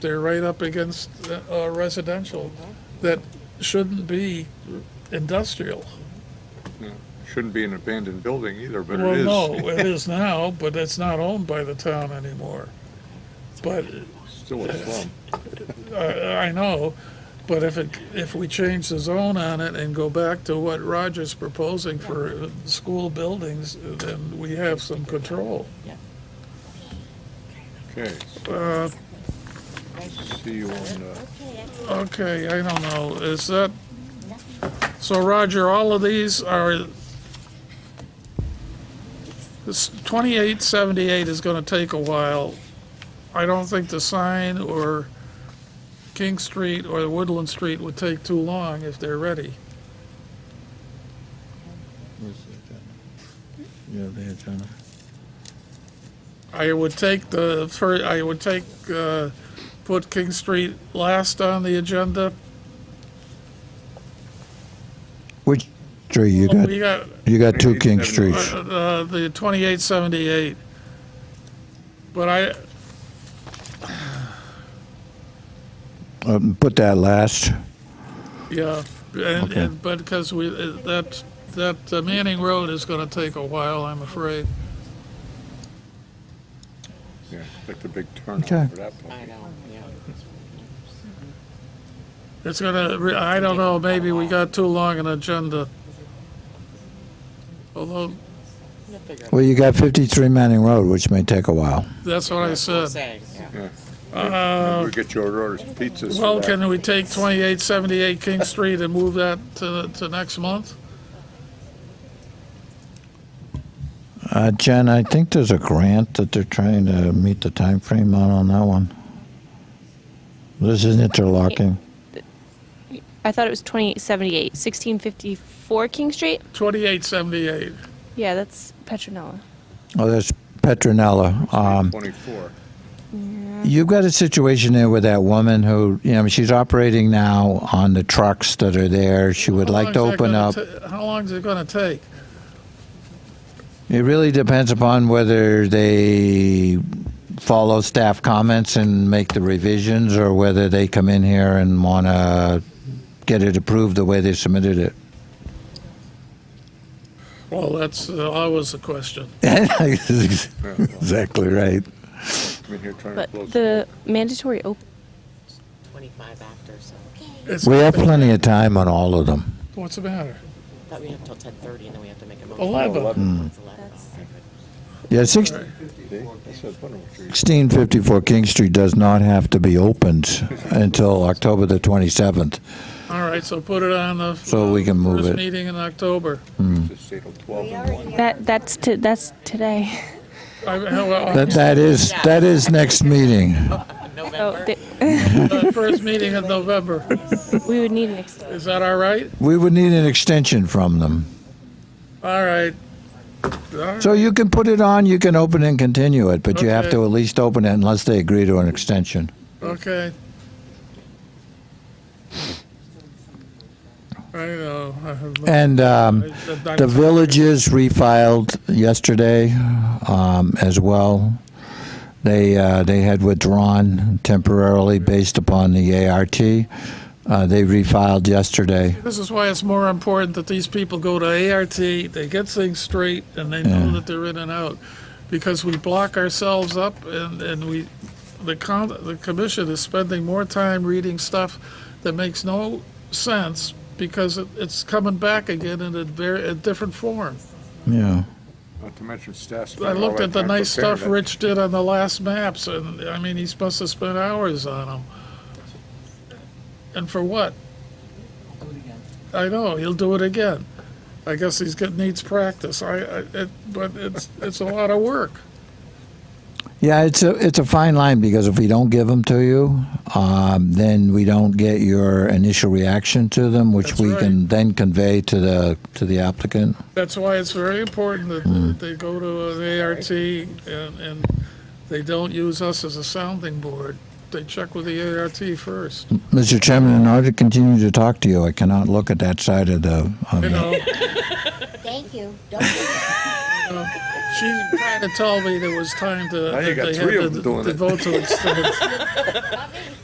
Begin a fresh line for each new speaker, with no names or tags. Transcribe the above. They're right up against uh, uh, residential that shouldn't be industrial.
Shouldn't be an abandoned building either, but
well,
it is.
no, it is now, but it's not owned by the town anymore. But uh,
Still a slum.
I, I know, but if it, if we change the zone on it and go back to what Roger's proposing for uh, school buildings, then we have some control.
Okay,
Uh,
see you on, uh,
Okay, I don't know, is that, so Roger, all of these are, this 2878 is gonna take a while. I don't think the sign or King Street or Woodland Street would take too long if they're ready.
Where's the agenda? You have the agenda.
I would take the, fir- I would take, uh, put King Street last on the agenda.
Which tree? You got
We got,
you got two King Streets.
Uh, the 2878. But I,
Um, put that last.
yeah, and,
Okay.
and, but because we, uh, that, that uh, Manning Road is gonna take a while, I'm afraid.
yeah, like the big turnout
Okay.
for that
I
puppy.
know, yeah.
It's gonna, re- I don't know, maybe we got too long an agenda. Although,
We'll figure it out.
Well, you got 53 Manning Road, which may take a while.
that's what I
We'll
said.
say, yeah.
Uh,
We get your orders, pizzas. for
well,
that.
can we take 2878 King Street and move that to, to next month?
Uh, Jen, I think there's a grant that they're trying to meet the time frame on on that one. This is interlocking.
I thought it was 2878, 1654 King Street.
2878.
Yeah, that's Petronella.
Oh, that's Petronella. Um,
Twenty-four.
you've got a situation there with that woman who, you know, she's operating now on the trucks that are there. She would
How
like to
long is that
open
gonna
up.
ta- How long is it gonna take?
It really depends upon whether they follow staff comments and make the revisions or whether they come in here and want to get it approved the way they submitted it.
Well, that's uh, always a question.
exactly right.
I'm in here trying to
But
close.
the mandatory open.
Twenty-five after, so,
It's-
We have plenty of time on all of them.
What's the matter?
thought we have till ten-thirty and then we have to make a motion.
Eleven.
It's eleven,
That's-
okay, good.
Yeah, six-
See? I said, "Wonder what you're-"
1654 King Street does not have to be opened until October the 27th.
All right, so put it on the.
So we can move
First
it.
meeting in October.
Just say till twelve and one.
That that's to that's today.
I- well,
That, that is that is next meeting.
Oh, th-
the First meeting in November.
we would need an extension.
Is that all right?
We would need an extension from them.
All right. All right.
So you can put it on, you can open and continue it, but you have
Okay.
to at least open it unless they agree to an extension.
Okay. I know. I have no-
And um,
I- I-
the villages refiled yesterday um, as well. They uh, they had withdrawn temporarily based upon the ART. Uh, they refiled yesterday.
This is why it's more important that these people go to ART, they get things straight, and they know that they're in and out. Because we block ourselves up and, and we, the con, the commission is spending more time reading stuff that makes no sense because it, it's coming back again in a very, a different form.
Yeah.
Not to mention staff.
I
spend all
looked
that
at the
time
nice
preparing
stuff
it.
Rich did on the last maps and, I mean, he must have spent hours on them. And for what? I know, he'll do it again. I guess he's got, needs practice. I, I, it, but it's, it's a lot of work.
Yeah, it's a it's a fine line because if we don't give them to you, um, then we don't get your initial reaction to them, which
That's
we
right.
can then convey to the to the applicant.
That's why it's very important that that they go to an ART and, and they don't use us as a sounding board. They check with the ART first,
Mr. Chairman, in order to continue to talk to you, I cannot look at that side of the. Of
you
the
know?
Thank you. Don't do that.
She kind of told me there was time to.
Now you
that
got
they
three
had
of
to-
them doing
to
it.
vote to extend.